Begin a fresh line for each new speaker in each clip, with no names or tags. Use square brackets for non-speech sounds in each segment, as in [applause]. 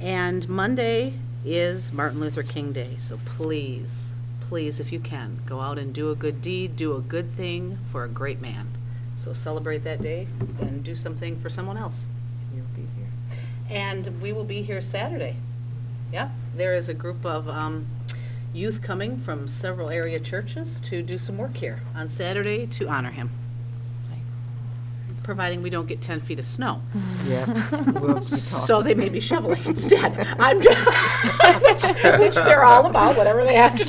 And Monday is Martin Luther King Day, so please, please, if you can, go out and do a good deed, do a good thing for a great man. So celebrate that day and do something for someone else.
You'll be here.
And we will be here Saturday. Yep, there is a group of um, youth coming from several area churches to do some work here on Saturday to honor him,
Nice.
providing we don't get 10 feet of snow.
[laughs] Yeah, we'll be
So
talking.
they may be shoveling instead. I'm just, which, [laughs] which they're all about, whatever they have to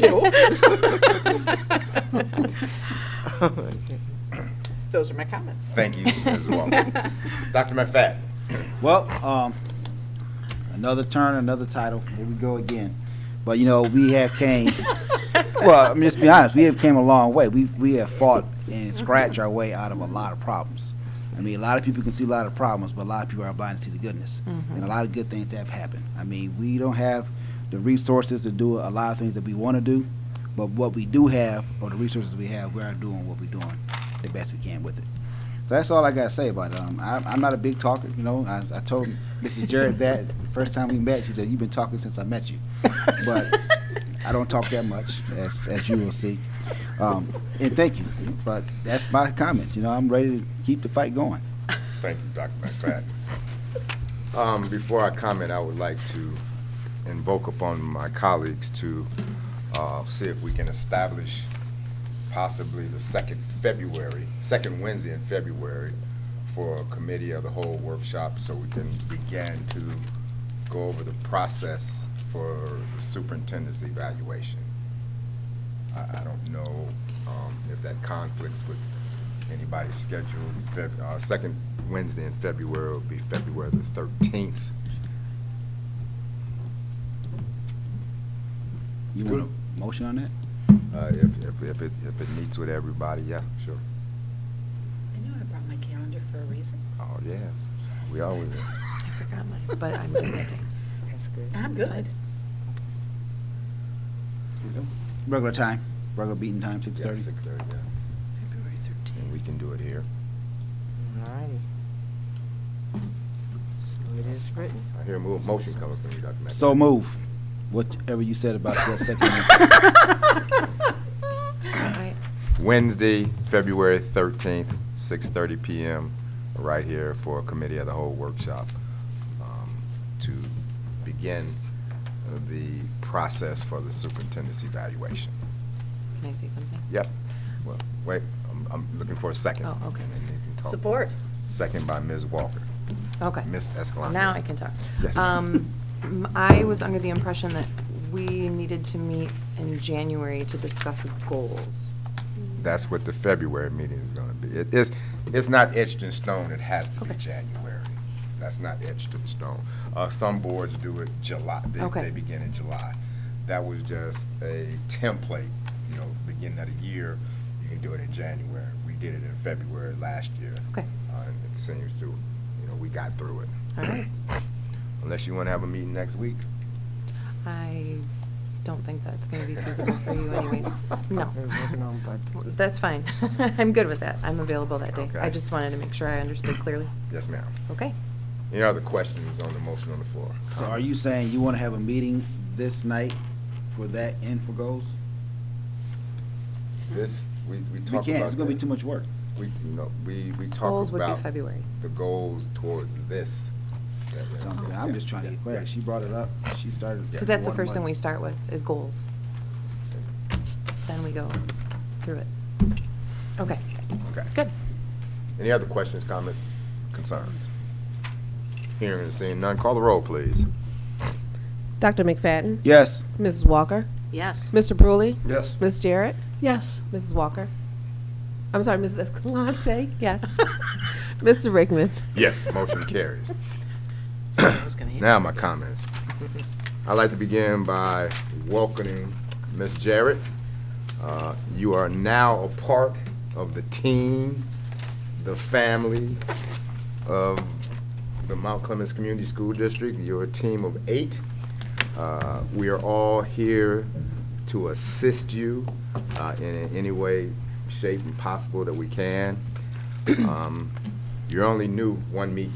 [laughs] do.
[laughs]
Those are my comments.
Thank you
[laughs]
as well. Dr. McFadden?
Well, um, another turn, another title. Here we go again. But you know, we have came. well, I'm just be honest. We have came a long way. We we have fought and scratched our way out of a lot of problems. I mean, a lot of people can see a lot of problems, but a lot of people are blind to see the goodness. And a lot of good things have happened. I mean, we don't have the resources to do a lot of things that we want to do, but what we do have, or the resources we have, we are doing what we're doing the best we can with it. So that's all I gotta say about it. Um, I, I'm not a big talker, you know. I, I told Mrs. Jared that the first time we met. She said, "You've been talking since I met you," but I don't talk that much, as as you will see. Um, and thank you, but that's my comments. You know, I'm ready to keep the fight going.
Thank you, Dr. McFadden. Um, Before I comment, I would like to invoke upon my colleagues to uh, see if we can establish possibly the second February, second Wednesday in February for a committee of the whole workshop so we can begin to go over the process for superintendent's evaluation. I, I don't know um, if that conflicts with anybody's schedule. Feb- uh, Second Wednesday in February will be February the 13th.
You want a motion on that?
Uh, If, if- if it, if it meets with everybody, yeah, sure.
I knew I brought my calendar for a reason.
Oh, yes, we always,
[laughs]
I forgot my,
[laughs]
but I'm good that day. That's good.
I'm
That's
good.
Regular time, regular beating time, six
yeah,
thirty.
6:30, yeah.
February
And we
thirteenth.
can do it here.
Alrighty. So it is written.
I hear a mo- motion coming from you, Dr. McNamara.
So move. Whatever you said about that second.
I,
Wednesday, February 13th, 6:30 PM, right here for a committee of the whole workshop um, to begin uh, the process for the superintendent's evaluation.
can I say something?
Yep. Well, wait, I'm- I'm looking for a second.
Oh, okay.
And then you can talk.
Support.
Second by Ms. Walker.
Okay.
Ms. Escalante.
Now I can talk.
Yes.
Um, m- I was under the impression that we needed to meet in January to discuss goals.
That's what the February meeting is going to be. It- It's, it's not etched in stone, it has to be
Okay.
January. That's not etched in stone. Uh, Some boards do it July, they,
Okay.
they begin in July. That was just a template, you know, beginning of the year, you can do it in January. We did it in February last year.
Okay.
Uh, and It seems to, you know, we got through it.
All right.
[clears throat] Unless you want to have a meeting next week.
I don't think that's going to be feasible for you
[laughs]
anyways. No. That's fine. [laughs] I'm good with that. I'm available that day. I
Okay.
just wanted to make sure I understood clearly.
Yes, ma'am.
Okay.
Any other questions on the motion on the floor?
So are you saying you want to have a meeting this night for that and for goals?
This, we, we talked
We
about.
can't. It's gonna be
that.
too much work.
We, no, we, we talked
Goals would be
about
February.
the goals towards this.
Something. I'm just trying to get clarity. She brought it up. She started.
Because that's the
wanting
first thing
money.
we start with, is goals. Then we go through it. Okay,
Okay.
good.
Any other questions, comments, concerns? Hearing and seeing none, call the roll, please.
Dr. McFadden,
Yes.
Mrs. Walker,
[coughs]
Yes.
Mr. Brewley,
Yes.
Miss Jarrett,
Yes.
Mrs. Walker. I'm sorry, Mrs. Escalante, [laughs] yes. Mr. Rickman.
Yes, motion carries.
I was gonna answer.
Now my comments. I'd like to begin by welcoming Ms. Jarrett. Uh, You are now a part of the team, the family of the Mount Clemens Community School District. You're a team of eight. Uh, We are all here to assist you uh, in any way, shape, and possible that we can.
[laughs]
Um, You're only new one meet.